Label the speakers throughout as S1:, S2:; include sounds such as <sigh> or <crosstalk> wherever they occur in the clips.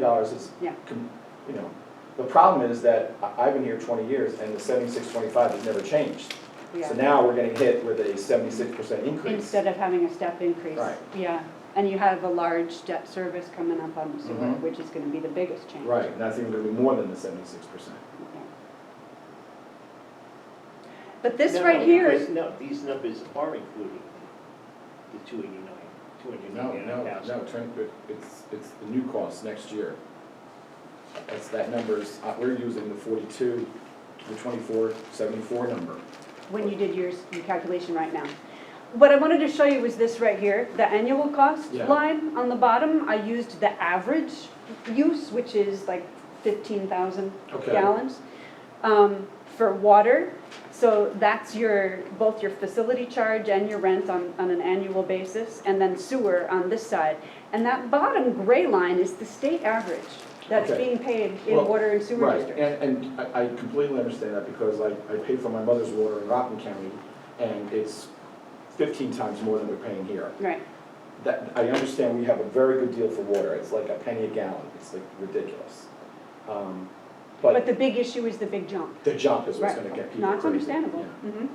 S1: dollars is,
S2: Yeah.
S1: com- you know, the problem is that I- I've been here twenty years and the seventy-six twenty-five has never changed. So
S2: yeah,
S1: now we're getting hit with a seventy-six percent increase.
S2: instead of having a step increase.
S1: Right.
S2: Yeah, and you have a large debt service coming up on the sewer,
S1: Mhm.
S2: which is gonna be the biggest change.
S1: Right, and that's even gonna be more than the seventy-six percent.
S2: Yeah. But this
S3: No,
S2: right
S3: no,
S2: here
S3: because
S2: is,
S3: No, these numbers are including the two eighty-nine, two hundred
S1: No,
S3: and
S1: no,
S3: eighty-nine
S1: no,
S3: thousand.
S1: Trent, but it's, it's the new cost next year. That's, that number's, uh, we're using the forty-two, the twenty-four, seventy-four number.
S2: when you did yours, your calculation right now. What I wanted to show you was this right here, the annual cost
S1: Yeah.
S2: line on the bottom. I used the average use, which is like fifteen thousand
S1: Okay.
S2: gallons um, for water. So that's your, both your facility charge and your rent on, on an annual basis, and then sewer on this side. And that bottom gray line is the state average that's
S1: Okay.
S2: being paid in
S1: Well,
S2: water and sewer
S1: Right,
S2: districts.
S1: and, and I I completely understand that because I, I pay for my mother's water in Rockland County and it's fifteen times more than we're paying here.
S2: Right,
S1: That, I understand we have a very good deal for water, it's like a penny a gallon, it's like ridiculous. Um,
S2: but
S1: But
S2: the big issue is the big jump.
S1: the jump is what's
S2: Right.
S1: gonna get people crazy.
S2: No, it's understandable.
S1: yeah.
S2: Mhm.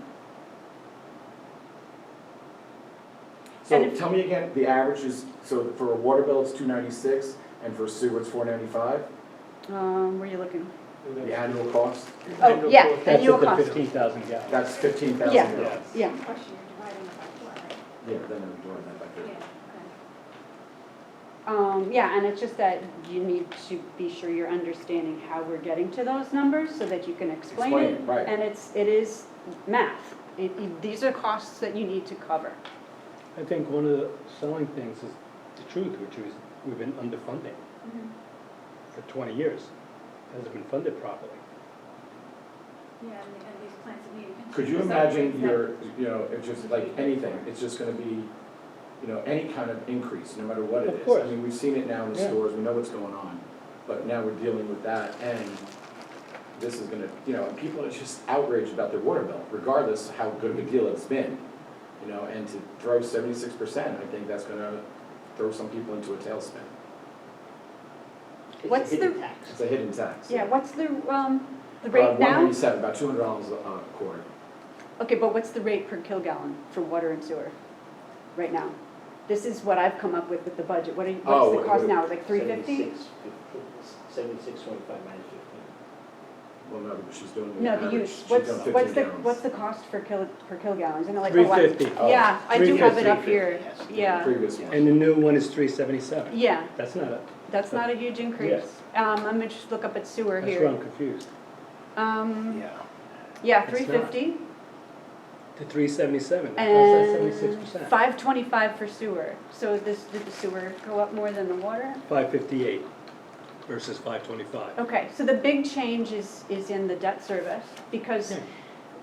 S2: And
S1: So
S2: if-
S1: tell me again, the average is, so for a water bill, it's two ninety-six and for sewer, it's four ninety-five,
S2: Um, where are you looking?
S1: the annual cost,
S2: Oh, yeah,
S4: That's
S2: annual
S4: at the
S2: cost.
S4: fifteen thousand gallons.
S1: that's fifteen
S2: Yeah.
S1: thousand
S4: Yeah.
S1: dollars.
S2: Yeah,
S5: Plus you're dividing it by four, right?
S1: Yeah, then I'm doing that back there.
S5: Yeah.
S2: um, yeah, and it's just that you need to be sure you're understanding how we're getting to those numbers so that you can explain it.
S1: Explain it, right.
S2: And it's, it is math. It, it- these are costs that you need to cover.
S4: I think one of the selling things is the truth, which is we've been underfunding for twenty years. Hasn't been funded properly.
S5: Yeah, and and these plans that need attention.
S1: Could you
S5: So
S1: imagine
S5: it's
S1: your, you know, it's just like anything, it's just gonna be, you know, any kind of increase, no matter what it is.
S4: Of course.
S1: I mean, we've seen it now in the
S4: Yeah.
S1: stores, we know what's going on, but now we're dealing with that and this is gonna, you know, and people are just outraged about their water bill, regardless how good of a deal it's been. You know, and to throw seventy-six percent, I think that's gonna throw some people into a tailspin.
S3: It's a
S2: What's the-
S3: hidden tax.
S1: It's a hidden tax.
S2: Yeah, what's the, um, the
S1: Uh,
S2: rate now?
S1: 197, about two hundred dollars a quarter.
S2: Okay, but what's the rate per kilgallon for water and sewer right now? This is what I've come up with with the budget. What are, you-
S1: Oh,
S2: what's
S1: what-
S2: the cost
S1: what-
S2: now? Like three fifty? Mm.
S3: Seventy-six, fifteen, seventy-six twenty-five minus fifteen.
S1: Well, no, because she's doing the
S2: No,
S1: average,
S2: the use.
S1: she's doing
S2: What's,
S1: fifteen
S2: what's the,
S1: gallons.
S2: what's the cost per kil, per kilgallon? Isn't it like? a
S4: Three
S2: lot-
S4: fifty.
S1: Oh.
S2: Yeah, I do have it up
S3: 350,
S2: here,
S3: yes.
S2: yeah,
S1: Previous one.
S4: And the new one is three seventy-seven.
S2: yeah,
S4: That's not, a-
S2: that's not a huge increase. Um, I'm gonna just look up at sewer
S4: that's where
S2: here.
S4: I'm confused.
S2: Um,
S3: Yeah.
S2: yeah,
S4: It's
S2: three fifty
S4: The three seventy-seven, how's that seventy-six
S2: and
S4: percent?
S2: five twenty-five for sewer. So this, did the sewer go up more than the water?
S4: Five fifty-eight versus five twenty-five.
S2: Okay, so the big change is, is in the debt service, because
S4: Yeah.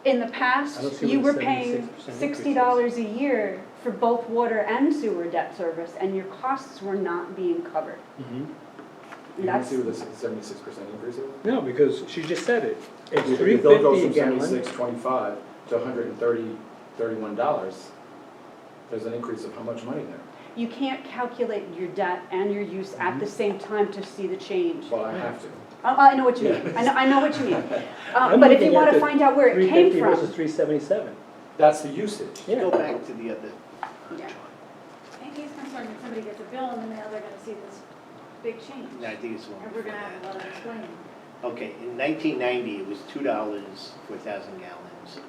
S2: in the
S4: I don't
S2: past,
S4: see
S2: you were
S4: what the
S2: paying
S4: 76%
S2: sixty dollars a year for both water and sewer debt service, and your costs were not being covered.
S1: You can
S2: That's-
S1: see where the seventy-six percent increase is?
S4: Mm-hmm. No, because she just said it. It's
S1: Your
S4: three
S1: bill goes
S4: fifty a
S1: from
S4: gallon.
S1: seventy-six twenty-five to hundred and thirty, thirty-one dollars. There's an increase of how much money there?
S2: You can't calculate your debt and your use at
S4: Mm-hmm.
S2: the same time to see the change.
S1: Well, I have to.
S2: Oh, I know what you mean, I know, I know what
S4: <laughs>
S2: you mean. Uh,
S4: I'm
S2: But if you
S4: looking at
S2: want to
S4: the
S2: find out where it
S4: Three
S2: came
S4: fifty versus
S2: from.
S4: three seventy-seven.
S1: That's the usage.
S4: Yeah.
S3: Go back to the other.
S2: Yeah.
S5: And he's concerned that somebody gets a bill in the mail, they're gonna see this big change.
S3: No, I think it's one.
S5: And we're gonna have a lot of explaining.
S3: Okay, in nineteen ninety, it was two dollars for a thousand gallons.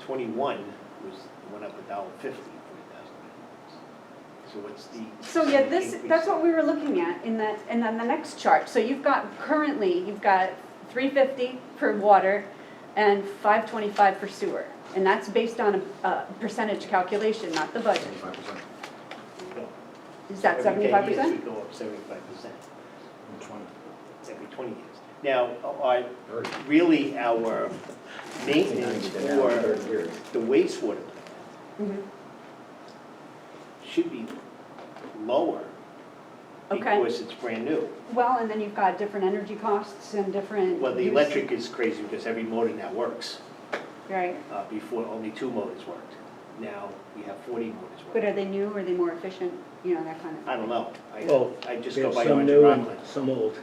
S3: Twenty-one was, it went up a dollar fifty for a thousand gallons. So what's the?
S2: So yeah, this,
S3: increase?
S2: that's what we were looking at in that, and then the next chart. So you've got currently, you've got three fifty for water and five twenty-five for sewer. And that's based on a, a percentage calculation, not the budget.
S1: Seventy-five percent.
S3: No.
S2: Is that
S3: Every E ten
S2: seventy-five
S3: years,
S2: percent?
S3: we go up seventy-five percent,
S1: Twenty,
S3: every twenty years. Now, our,
S1: thirty.
S3: really, our maintenance
S1: Ninety down,
S3: for
S1: thirty years.
S3: the wastewater plant
S2: Mm-hmm.
S3: should be lower
S2: Okay.
S3: because it's brand new.
S2: Well, and then you've got different energy costs and different.
S3: Well, the
S2: use-
S3: electric is crazy because every motor now works.
S2: Right,
S3: Uh, Before, only two motors worked. Now, we have 40 motors
S2: but
S3: working.
S2: are they new, are they more efficient? you know, that kind of thing.
S3: I don't know.
S4: Well,
S3: I, I just
S4: We
S3: go
S4: have
S3: by
S4: some
S3: Orange
S4: new
S3: Rockland.
S4: and some old.